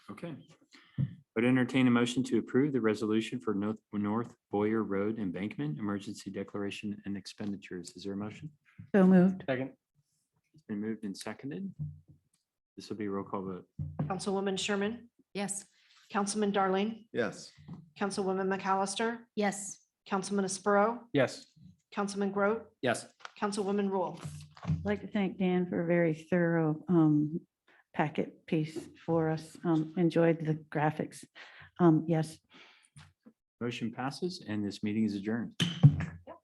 Okay. Would entertain a motion to approve the resolution for North, North Boyer Road Embankment Emergency Declaration and Expenditures. Is there a motion? So moved. Second. It's been moved and seconded. This will be a roll call vote. Councilwoman Sherman, Yes. Councilman Darling, yes, Councilwoman McAllister, Yes. Councilman Espero, Yes. Councilman Groot, Yes. Councilwoman Rule. I'd like to thank Dan for a very thorough um, packet piece for us. Um, Enjoyed the graphics. Um, Yes. Motion passes and this meeting is adjourned.